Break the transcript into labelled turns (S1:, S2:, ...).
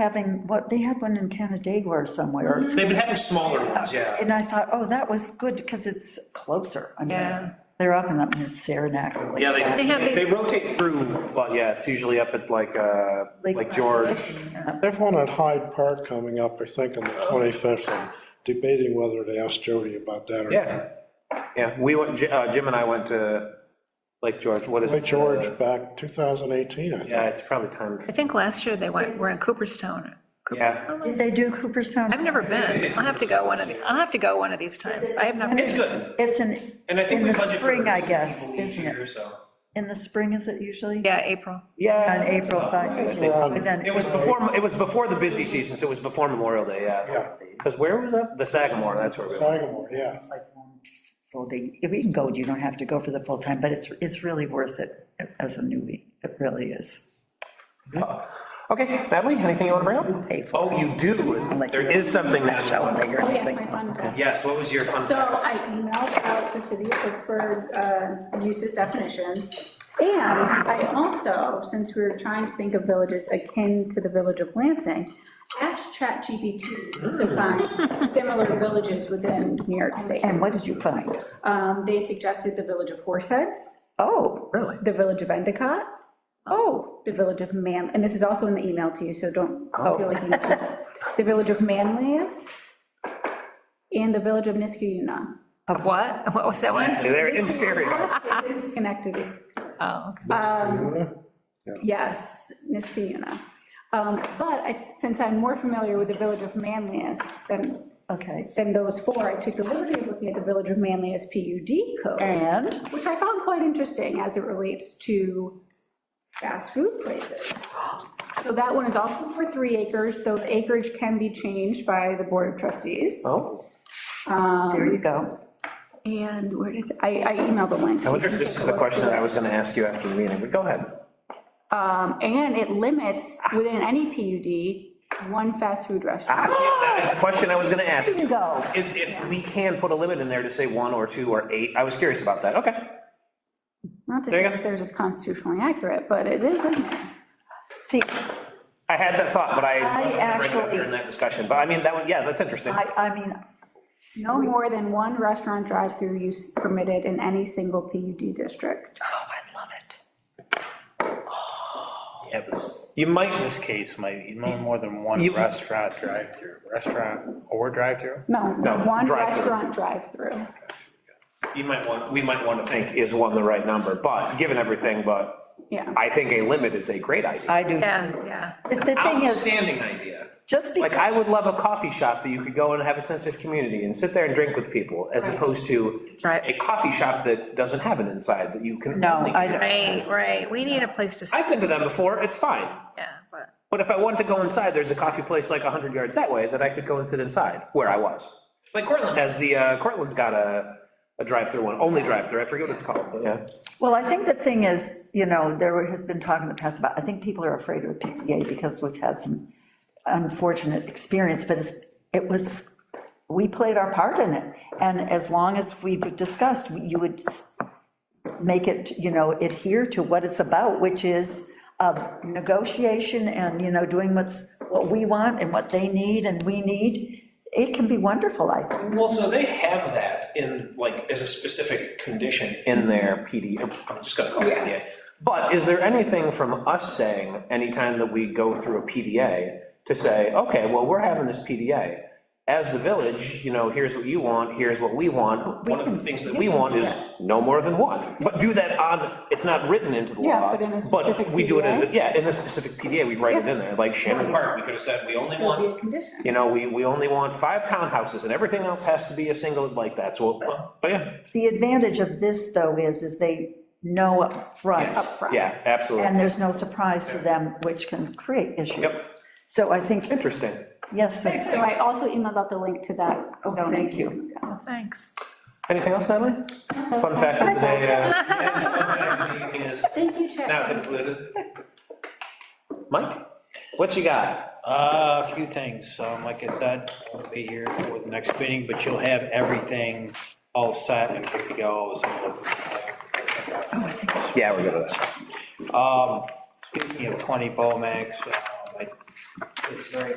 S1: having, what, they had one in Canandaigua or somewhere.
S2: Mm-hmm.
S3: They've been having smaller ones, yeah.
S1: And I thought, oh, that was good because it's closer. I
S2: Yeah.
S1: mean, they're up and up near Saranac. or like
S3: Yeah,
S2: They have
S3: they, they
S2: these-
S3: rotate through, but yeah, it's usually up at like, uh,
S1: Lake
S3: like George.
S4: They have one at Hyde Park coming up, I think, on the 25th, and debating whether to ask Jody about that or
S3: Yeah,
S4: not.
S3: yeah, we went, Ji- uh, Jim and I went to Lake George, what is it?
S4: Like George back 2018, I
S3: Yeah,
S4: think.
S3: it's probably time. for-
S2: I think last year they went, were in Cooperstown. Cooperstown?
S1: Did they do Cooperstown?
S2: I've never been. I'll have to go one of, the- I'll have to go one of these times. I have not.
S3: It's good,
S1: It's in,
S3: and I think
S1: In
S3: we
S1: the
S3: budget for.
S1: spring, I guess,
S3: people each
S1: isn't it?
S3: year, so.
S1: in the spring, is it usually?
S2: Yeah, April.
S3: Yeah.
S1: On April,
S3: I
S1: but,
S3: think-
S1: but then,
S3: It was before, it was before the busy season, so it was before Memorial Day, yeah.
S4: Yeah.
S3: Because where was that? The Sagamore, that's where we were.
S4: Sagamore, yeah.
S1: it's like one full day. We can go, you don't have to go for the full time, but it's, it's really worth it as a newbie. It really is.
S3: Oh. Okay, Natalie, anything you want to bring up?
S1: Pay for
S3: Oh, you do, there is something
S1: a shower
S3: now.
S1: day or
S5: Oh, yes,
S1: anything.
S5: my fun fact.
S3: Yes, what was your fun
S5: So
S3: fact?
S5: I emailed out the city of Pittsburgh uh, uses definitions. And I also, since we were trying to think of villages akin to the village of Lansing, asked ChatGPT to find similar villages within New York State.
S1: And what did you find?
S5: Um, They suggested the village of Horseheads,
S1: Oh,
S3: Really?
S5: the village of Endicott,
S1: oh,
S5: the village of Mam, and this is also in the email to you, so don't feel like you need to. The village of Manlius and the village of Niskayuna.
S2: Of what? What was that one?
S3: They're in stereo.
S5: It's in Schenectady.
S2: Oh, okay.
S5: Yes, Niskayuna. Um, But I- since I'm more familiar with the village of Manlius than,
S1: okay.
S5: than those four, I took the liberty of looking at the village of Manlius PUD code,
S1: And?
S5: which I found quite interesting as it relates to fast food places. So that one is also for three acres, though the acreage can be changed by the Board of Trustees.
S3: Oh,
S1: There you go.
S5: And where did, I I emailed the link.
S3: I wonder if this is the question that I was going to ask you after the meeting, but go ahead.
S5: Um, And it limits within any PUD, one fast food restaurant.
S3: That is the question I was going to ask,
S1: There you go.
S3: is if we can put a limit in there to say one or two or eight. I was curious about that, okay.
S5: Not to
S3: There
S5: say
S3: you
S5: that
S3: go.
S5: they're just constitutionally accurate, but it is in there.
S1: See,
S3: I had that thought, but I
S1: I
S3: wasn't gonna bring it up
S1: actually-
S3: during that discussion, but I mean, that one, yeah, that's interesting.
S1: I, I mean, oh,
S5: No more than one restaurant drive-through use permitted in any single PUD district.
S1: oh, I love it.
S6: Yeah, but
S3: You
S6: in
S3: might,
S6: this case, might, no more than one
S3: You-
S6: restaurant drive-through, restaurant or drive-through?
S5: No,
S3: No,
S5: one
S3: drive-through.
S5: restaurant drive-through.
S3: you might want, we might want to think, is one the right number, but, given everything, but
S5: Yeah.
S3: I think a limit is a great idea.
S1: I do.
S2: Yeah, yeah.
S1: The the thing is,
S3: Outstanding idea.
S1: just
S3: Like,
S1: because,
S3: I would love a coffee shop that you could go and have a sense of community and sit there and drink with people, as opposed to
S2: Right.
S3: a coffee shop that doesn't have an inside, that you can.
S1: No,
S3: only-
S1: I don't.
S2: Right, right. We need a place to, sit,
S3: I've been to them before, it's fine,
S2: yeah, but,
S3: but if I wanted to go inside, there's a coffee place like 100 yards that way that I could go and sit inside, where I was. Like Cortland has the, uh, Cortland's got a, a drive-through one, only drive-through, I forget what it's called, but yeah.
S1: well, I think the thing is, you know, there has been talk in the past about, I think people are afraid of the PDA because we've had some unfortunate experience, but it's, it was, we played our part in it. And as long as we've discussed, you would s- make it, you know, adhere to what it's about, which is uh, negotiation and, you know, doing what's, what we want and what they need and we need, it can be wonderful, I think.
S3: Well, so they have that in, like, as a specific condition. In their PD, I'm just gonna call it PDA. But is there anything from us saying, anytime that we go through a PDA, to say, okay, well, we're having this PDA, as the village, you know, here's what you want, here's what we want. One of the things that we want is no more than one, but do that on, it's not written into the law.
S5: Yeah, but in a specific
S3: we do it as, a-
S5: PDA?
S3: yeah, in a specific PDA, we write it in there, like Shannon Park, we could have said, we only
S5: That
S3: want
S5: would be a condition.
S3: you know, we, we only want five townhouses, and everything else has to be a single like that, so, but yeah.
S1: The advantage of this, though, is, is they know upfront,
S5: Upfront.
S3: Yeah, absolutely.
S1: and there's no surprise to them, which can create
S3: Yep,
S1: issues. So I think,
S3: interesting.
S1: yes, that's-
S5: So I also emailed out the link to that.
S1: Oh, thank you.
S2: thanks.
S3: Anything else, Natalie? Fun fact of the day. uh, yeah, it's fun fact of the evening is
S5: Thank you, Chad.
S3: Now concluded. Mike, what you got?
S6: Uh, a few things, um, like I said, I'll be here for the next meeting, but you'll have everything all set and good to go, so.
S3: Yeah, we're good with that.
S6: Um, Speaking of 20 Bomax, um, I it's very